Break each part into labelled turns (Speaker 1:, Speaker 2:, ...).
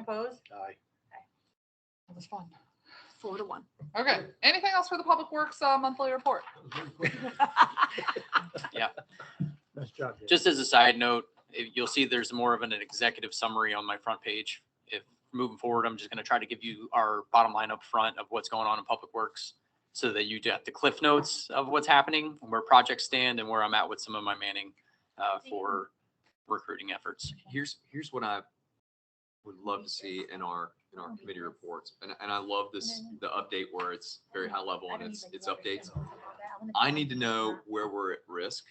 Speaker 1: Opposed?
Speaker 2: Aye.
Speaker 3: That was fun.
Speaker 4: Four to one.
Speaker 3: Okay, anything else for the Public Works uh, monthly report?
Speaker 2: Nice job. Dave.
Speaker 5: Just as a side note, if- you'll see there's more of an executive summary on my front page. If moving forward, I'm just going to try to give you our bottom line up front of what's going on in Public Works so that you get the cliff notes of what's happening, where projects stand and where I'm at with some of my manning uh, for recruiting efforts.
Speaker 6: Here's, here's what I would love to see in our, in our committee reports. And, and I love this, the update where it's very high level and it's, it's updates. I need to know where we're at risk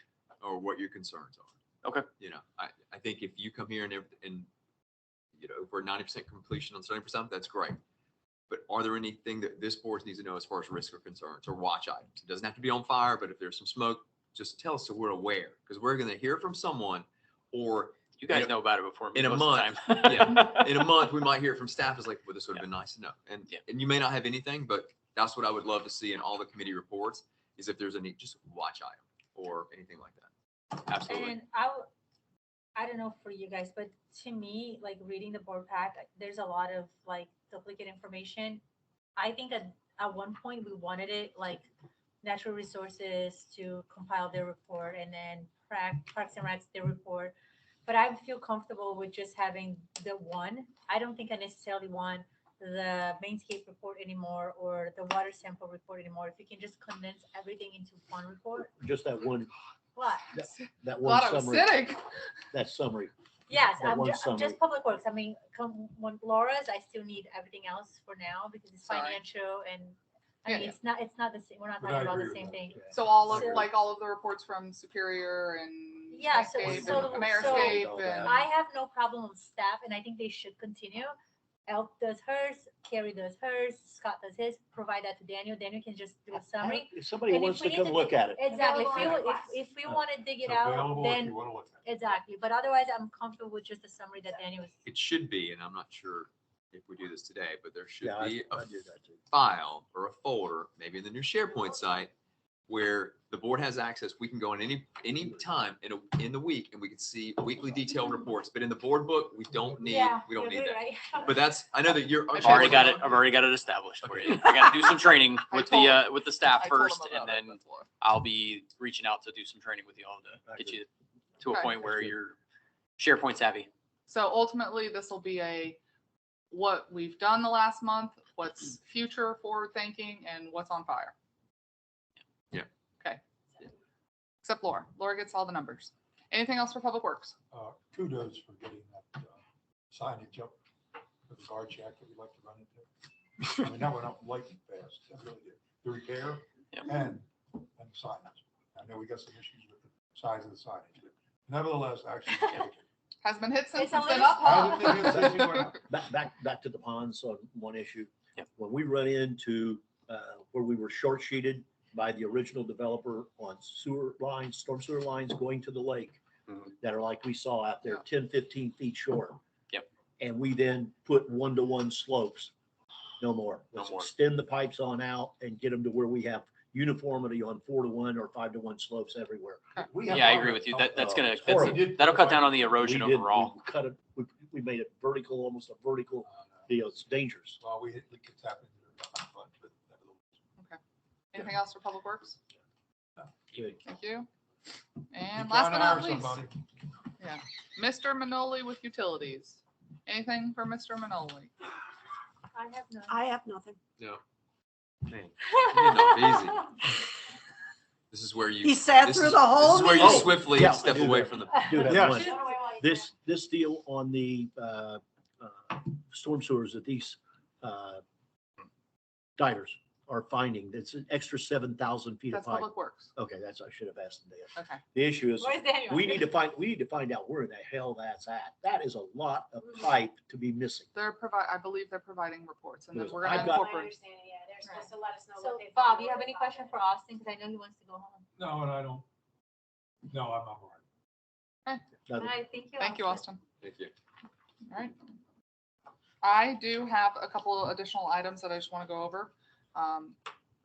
Speaker 6: or what your concerns are.
Speaker 5: Okay.
Speaker 6: You know, I, I think if you come here and, ev- and, you know, if we're ninety percent completion on seventy percent, that's great. But are there anything that this board needs to know as far as risk or concerns or watch items? It doesn't have to be on fire, but if there's some smoke, just tell us so we're aware, because we're gonna hear from someone or
Speaker 5: You guys
Speaker 6: In a-
Speaker 5: know about it before me.
Speaker 6: in a
Speaker 5: most of the
Speaker 6: month,
Speaker 5: time.
Speaker 6: in a month, we might hear from staff is like, well, this would have been nice to know. And,
Speaker 5: Yeah.
Speaker 6: and you may not have anything, but that's what I would love to see in all the committee reports is if there's any, just watch item or anything like that. Absolutely.
Speaker 1: And I, w- I don't know for you guys, but to me, like reading the board pack, there's a lot of like duplicate information. I think at, at one point we wanted it like natural resources to compile their report and then Prac- Parks and Recs their report. But I feel comfortable with just having the one. I don't think I necessarily want the mainscape report anymore or the water sample report anymore. If you can just condense everything into one report,
Speaker 2: Just that one,
Speaker 1: what?
Speaker 2: that one
Speaker 3: Thought I was
Speaker 2: summary,
Speaker 3: sitting.
Speaker 2: that summary.
Speaker 1: Yes,
Speaker 2: That
Speaker 1: I'm
Speaker 2: one
Speaker 1: ju- I'm
Speaker 2: summary.
Speaker 1: just public works. I mean, come when Laura's, I still need everything else for now because it's
Speaker 3: Sorry.
Speaker 1: financial and I
Speaker 3: Yeah,
Speaker 1: mean, it's not, it's not the same, we're not
Speaker 2: But
Speaker 1: talking
Speaker 2: I
Speaker 1: about
Speaker 2: agree
Speaker 1: the
Speaker 2: with
Speaker 1: same
Speaker 2: that,
Speaker 1: thing.
Speaker 2: yeah.
Speaker 3: So all of,
Speaker 1: So-
Speaker 3: like, all of the reports from Superior and.
Speaker 1: Yeah, so-
Speaker 3: Landscape
Speaker 1: so-
Speaker 3: and Amerescape
Speaker 2: so
Speaker 3: and-
Speaker 1: I have no problem with staff and I think they should continue. Elk does hers, Carrie does hers, Scott does his, provide that to Daniel. Daniel can just do a summary.
Speaker 2: If somebody
Speaker 1: And if
Speaker 2: wants
Speaker 1: we
Speaker 2: to
Speaker 1: need
Speaker 2: come
Speaker 1: to
Speaker 2: look at it,
Speaker 1: Exactly. If,
Speaker 4: Available
Speaker 1: you-
Speaker 4: on
Speaker 1: if,
Speaker 4: request.
Speaker 1: if we
Speaker 2: Yeah.
Speaker 1: want to dig it out, then
Speaker 2: want to look at
Speaker 1: exactly. But otherwise, I'm comfortable with just the summary that Daniel was.
Speaker 6: It should be, and I'm not sure if we do this today, but there should
Speaker 2: Yeah, I
Speaker 6: be
Speaker 2: I
Speaker 6: a
Speaker 2: do that too.
Speaker 6: file or a folder, maybe in the new SharePoint site, where the board has access. We can go in any, any time in a, in the week and we can see weekly detailed reports. But in the board book, we don't need,
Speaker 1: Yeah,
Speaker 6: we don't
Speaker 1: you're
Speaker 6: need
Speaker 1: good,
Speaker 6: that.
Speaker 1: right?
Speaker 6: But that's, I know that you're.
Speaker 3: I've
Speaker 5: I've already got it, I've
Speaker 6: already.
Speaker 5: already got it established for you. I got to do some training
Speaker 3: I
Speaker 5: with
Speaker 3: told
Speaker 5: the, uh, with the
Speaker 3: I
Speaker 5: staff
Speaker 3: told
Speaker 5: first
Speaker 3: them
Speaker 5: and
Speaker 3: about it,
Speaker 5: then
Speaker 3: that's why.
Speaker 5: I'll be reaching out to do some training with you all to get you to a
Speaker 3: Okay.
Speaker 5: point where you're SharePoint savvy.
Speaker 3: So ultimately, this will be a, what we've done the last month, what's future forward thinking and what's on fire.
Speaker 6: Yeah.
Speaker 3: Okay. Except Laura. Laura gets all the numbers. Anything else for Public Works?
Speaker 7: uh, kudos for getting that uh, signage up for the guard shack that we like to run into. I mean, that went up lightning fast, that really did. The repair
Speaker 5: Yep.
Speaker 7: and, and the signage. I know we got some issues with the size of the signage, but nevertheless, action. was taken.
Speaker 3: Has been hit since
Speaker 1: It's
Speaker 3: it's
Speaker 1: a
Speaker 3: been
Speaker 1: little-
Speaker 3: up,
Speaker 7: I don't think it's
Speaker 3: huh?
Speaker 7: an issue or not.
Speaker 2: Back, back, back to the ponds on one issue.
Speaker 5: Yep.
Speaker 2: When we run into, uh, where we were short sheeted by the original developer on sewer lines, storm sewer lines going to the lake
Speaker 5: Mhm.
Speaker 2: that are like we saw out there, 10, 15 feet short.
Speaker 5: Yep.
Speaker 2: And we then put one-to-one slopes, no more.
Speaker 5: No
Speaker 2: Let's
Speaker 5: more.
Speaker 2: extend the pipes on out and get them to where we have uniformity on four-to-one or five-to-one slopes everywhere.
Speaker 7: We have
Speaker 5: Yeah, I
Speaker 7: not
Speaker 5: agree
Speaker 7: met
Speaker 5: with you.
Speaker 7: up-
Speaker 5: That, that's
Speaker 2: uh,
Speaker 5: gonna,
Speaker 2: it's
Speaker 5: that's-
Speaker 7: horrible.
Speaker 5: that'll cut down on the
Speaker 2: We
Speaker 5: erosion
Speaker 2: did- we
Speaker 5: overall.
Speaker 2: Cut it, we, we made it vertical, almost a vertical deal. It's dangerous.
Speaker 7: Well, we, we could tap into it, but nevertheless.
Speaker 3: Anything else for Public Works?
Speaker 2: Good.
Speaker 3: Thank you.
Speaker 7: You
Speaker 3: And last
Speaker 7: gotta
Speaker 3: but
Speaker 7: hire
Speaker 3: not least,
Speaker 7: somebody.
Speaker 3: Mr. Manoli with utilities. Anything for Mr. Manoli?
Speaker 1: I have none.
Speaker 4: I have nothing.
Speaker 6: No. Man, you made it up This is where you.
Speaker 4: He sat
Speaker 6: this
Speaker 4: through
Speaker 6: is-
Speaker 4: the
Speaker 6: This
Speaker 4: whole
Speaker 6: is where
Speaker 4: meeting.
Speaker 6: you swiftly
Speaker 2: Yeah, I
Speaker 6: step
Speaker 2: do
Speaker 6: away
Speaker 2: that.
Speaker 6: from the.
Speaker 2: Do have
Speaker 7: Yes.
Speaker 2: one. This, this deal on the, uh, uh, storm sewers that these, uh, divers are finding, that's an extra seven thousand feet of
Speaker 3: That's
Speaker 2: pipe.
Speaker 3: Public Works.
Speaker 2: Okay, that's, I should have asked them that.
Speaker 3: Okay.
Speaker 2: The issue is,
Speaker 1: Where's Daniel?
Speaker 2: we need to find, we need to find out where the hell that's at. That is a lot of pipe to be missing.
Speaker 3: They're provide, I believe they're providing reports and then
Speaker 2: Yes,
Speaker 3: we're gonna
Speaker 2: I've got-
Speaker 3: incorporate.
Speaker 1: supposed So Bob, you have any question for Austin? Because I know he wants to go home.
Speaker 7: No, and I don't, no, I'm all right.
Speaker 1: All
Speaker 2: Now,
Speaker 1: right, thank you.
Speaker 3: Thank you, Austin.
Speaker 6: Thank you.
Speaker 3: All right. I do have a couple additional items that I just want to go over. Um,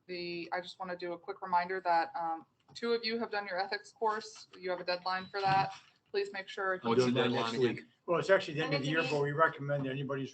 Speaker 3: The, I just want to do a quick reminder that um, two of you have done your ethics course. You have a deadline for that. Please make sure.
Speaker 2: I'm
Speaker 6: What's the
Speaker 2: doing that
Speaker 6: deadline
Speaker 2: next
Speaker 6: again?
Speaker 2: week.
Speaker 8: Well, it's actually the end
Speaker 1: And
Speaker 8: of the
Speaker 1: it's
Speaker 8: year,
Speaker 1: an
Speaker 8: but we recommend that anybody's